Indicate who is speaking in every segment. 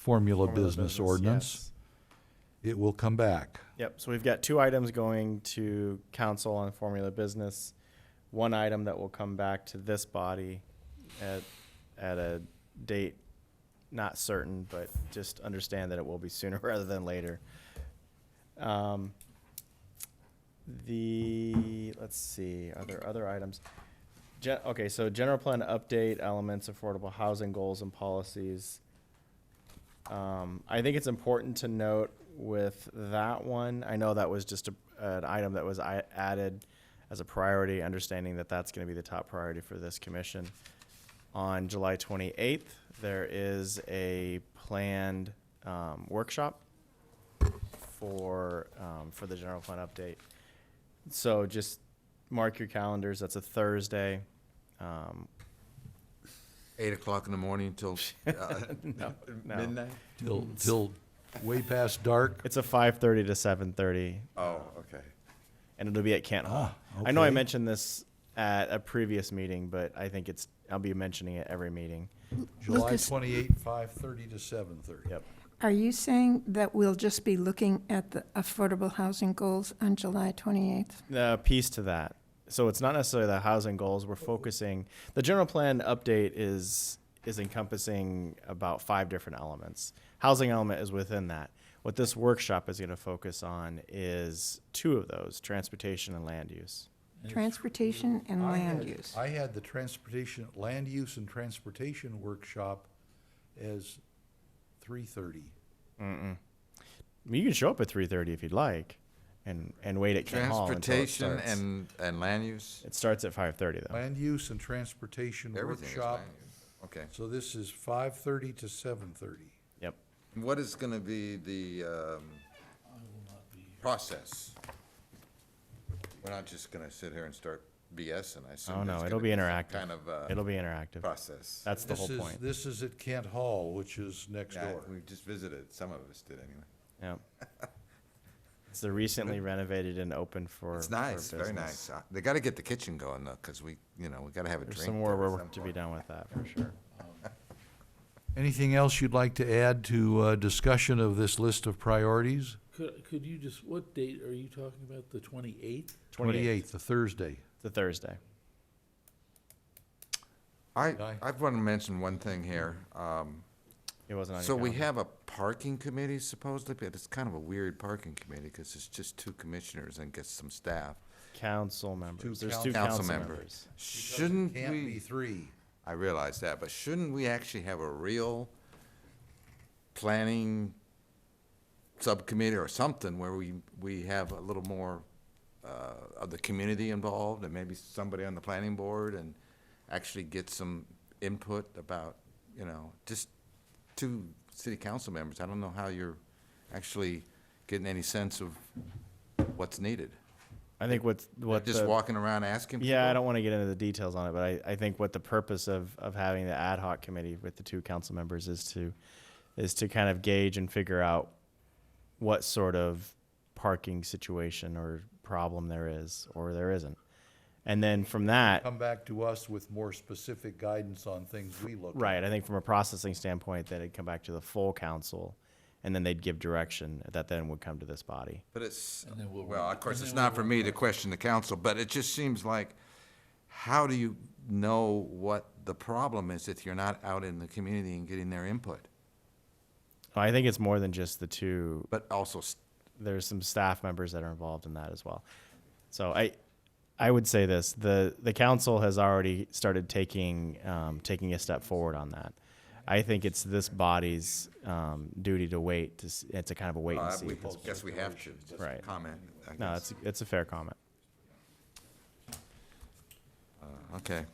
Speaker 1: formula
Speaker 2: Formula
Speaker 1: business ordinance.
Speaker 2: yes.
Speaker 1: It will come back.
Speaker 2: Yep, so we've got two items going to council on formula business, one item that will come back to this body at, at a date not certain, but just understand that it will be sooner rather than later. Um, The, let's see, are there other items? Gen, okay, so general plan update, elements, affordable housing goals and policies. Um, I think it's important to note with that one, I know that was just a, an item that was I added as a priority, understanding that that's going to be the top priority for this commission. On July 28th, there is a planned um, workshop for, um, for the general fund update. So just mark your calendars. That's a Thursday. Um,
Speaker 3: Eight o'clock in the morning till uh,
Speaker 2: no, no.
Speaker 3: midnight?
Speaker 1: Till, till way past dark.
Speaker 2: It's a 5:30 to 7:30
Speaker 3: Oh, okay.
Speaker 2: and it'll be at Cant Hall.
Speaker 1: Ah,
Speaker 2: I know I
Speaker 1: okay.
Speaker 2: mentioned this at a previous meeting, but I think it's I'll be mentioning it every meeting.
Speaker 1: July
Speaker 4: Lucas-
Speaker 1: twenty-eight, five-thirty to seven-thirty.
Speaker 2: Yep.
Speaker 4: Are you saying that we'll just be looking at the affordable housing goals on July 28th?
Speaker 2: Uh, piece to that. So it's not necessarily the housing goals. We're focusing the general plan update is is encompassing about five different elements. Housing element is within that. What this workshop is going to focus on is two of those: transportation and land use.
Speaker 4: Transportation and
Speaker 1: I
Speaker 4: land
Speaker 1: had-
Speaker 4: use.
Speaker 1: I had the transportation, land use and transportation workshop as three-thirty.
Speaker 2: I mean, you can show up at three thirty if you'd like, and and wait at Kent Hall until it
Speaker 3: Transportation
Speaker 2: starts.
Speaker 3: and, and land use?
Speaker 2: it starts at five thirty though.
Speaker 1: Land use and transportation
Speaker 3: Everything is land
Speaker 1: workshop.
Speaker 3: use. Okay.
Speaker 1: So this is five-thirty to seven-thirty.
Speaker 2: Yep.
Speaker 3: What is gonna be the, um, process? We're not just gonna sit here and start BSing,
Speaker 2: Oh
Speaker 3: I assume. there's
Speaker 2: no,
Speaker 3: gonna
Speaker 2: it'll be
Speaker 3: some
Speaker 2: interactive.
Speaker 3: Kind of,
Speaker 2: it'll
Speaker 3: uh,
Speaker 2: be interactive.
Speaker 3: process.
Speaker 2: That's the whole point.
Speaker 1: This is at Kent Hall, which is next
Speaker 3: Yeah,
Speaker 1: door.
Speaker 3: we just visited, some of us did anyway.
Speaker 2: yeah. It's the recently renovated and open for.
Speaker 3: It's
Speaker 2: for
Speaker 3: nice, very
Speaker 2: business.
Speaker 3: nice. Uh, They gotta get the kitchen going though, cause we, you know, we gotta have a drink.
Speaker 2: There's some more
Speaker 3: there at
Speaker 2: work
Speaker 3: some
Speaker 2: to be
Speaker 3: point.
Speaker 2: done with that for sure.
Speaker 1: Anything else you'd like to add to uh, discussion of this list of priorities?
Speaker 5: Could, could you just, what date are you talking about, the twenty-eighth?
Speaker 2: 28th.
Speaker 1: Twenty-eighth, the Thursday.
Speaker 2: It's a Thursday.
Speaker 3: I,
Speaker 1: Guy?
Speaker 3: I wanna mention one thing here. Um,
Speaker 2: It wasn't on.
Speaker 3: So
Speaker 2: your
Speaker 3: we
Speaker 2: calendar.
Speaker 3: have a parking committee supposedly, but it's kind of a weird parking committee because it's just two commissioners and gets some staff.
Speaker 2: council members. There's
Speaker 1: coun-
Speaker 2: two
Speaker 3: Council
Speaker 2: council,
Speaker 3: member.
Speaker 2: members.
Speaker 3: Shouldn't
Speaker 1: Can't be
Speaker 3: we,
Speaker 1: three.
Speaker 3: I realize that, but shouldn't we actually have a real planning subcommittee or something where we, we have a little more uh, of the community involved and maybe somebody on the planning board and actually get some input about, you know, just two city council members. I don't know how you're actually getting any sense of what's needed.
Speaker 2: I think what's what
Speaker 3: Just
Speaker 2: the,
Speaker 3: walking around asking.
Speaker 2: Yeah, I
Speaker 3: people?
Speaker 2: don't want to get into the details on it, but I, I think what the purpose of, of having the ad hoc committee with the two council members is to is to kind of gauge and figure out what sort of parking situation or problem there is or there isn't. And then from that,
Speaker 1: Come back to us with more specific guidance on things we look at.
Speaker 2: right, I think from a processing standpoint, then it'd come back to the full council and then they'd give direction that then would come to this body.
Speaker 3: But it's,
Speaker 5: then we'll
Speaker 3: well,
Speaker 5: work-
Speaker 3: of course, it's not for me to question the council, but it just seems like, how do you know what the problem is if you're not out in the community and getting their input?
Speaker 2: I think it's more than just the two
Speaker 3: But also, s-
Speaker 2: there's some staff members that are involved in that as well. So I, I would say this: the the council has already started taking um, taking a step forward on that. I think it's this body's um, duty to wait to. s- It's a kind of a wait and
Speaker 3: uh,
Speaker 2: see.
Speaker 3: we
Speaker 2: at this point.
Speaker 3: guess we have to, just
Speaker 2: Right.
Speaker 3: comment, I
Speaker 2: No,
Speaker 3: guess.
Speaker 2: it's it's a fair comment.
Speaker 3: Okay.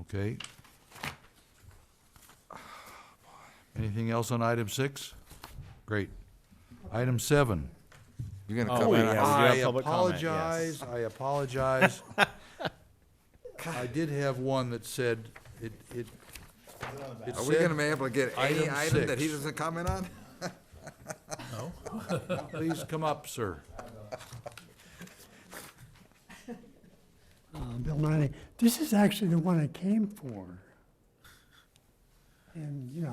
Speaker 1: Okay. Anything else on item six? Great. Item seven.
Speaker 3: You're
Speaker 2: Oh,
Speaker 3: gonna comment
Speaker 2: yeah.
Speaker 3: on,
Speaker 2: we do have
Speaker 1: I
Speaker 2: public comment,
Speaker 1: apologize,
Speaker 2: yes.
Speaker 1: I apologize. I did have one that said, it, it, it
Speaker 3: are we gonna
Speaker 1: said,
Speaker 3: be able to get any
Speaker 1: Item
Speaker 3: item that he
Speaker 1: six.
Speaker 3: doesn't comment on?
Speaker 1: please come up, sir.
Speaker 6: Uh, Bill Nye, this is actually the one I came for. And, you know,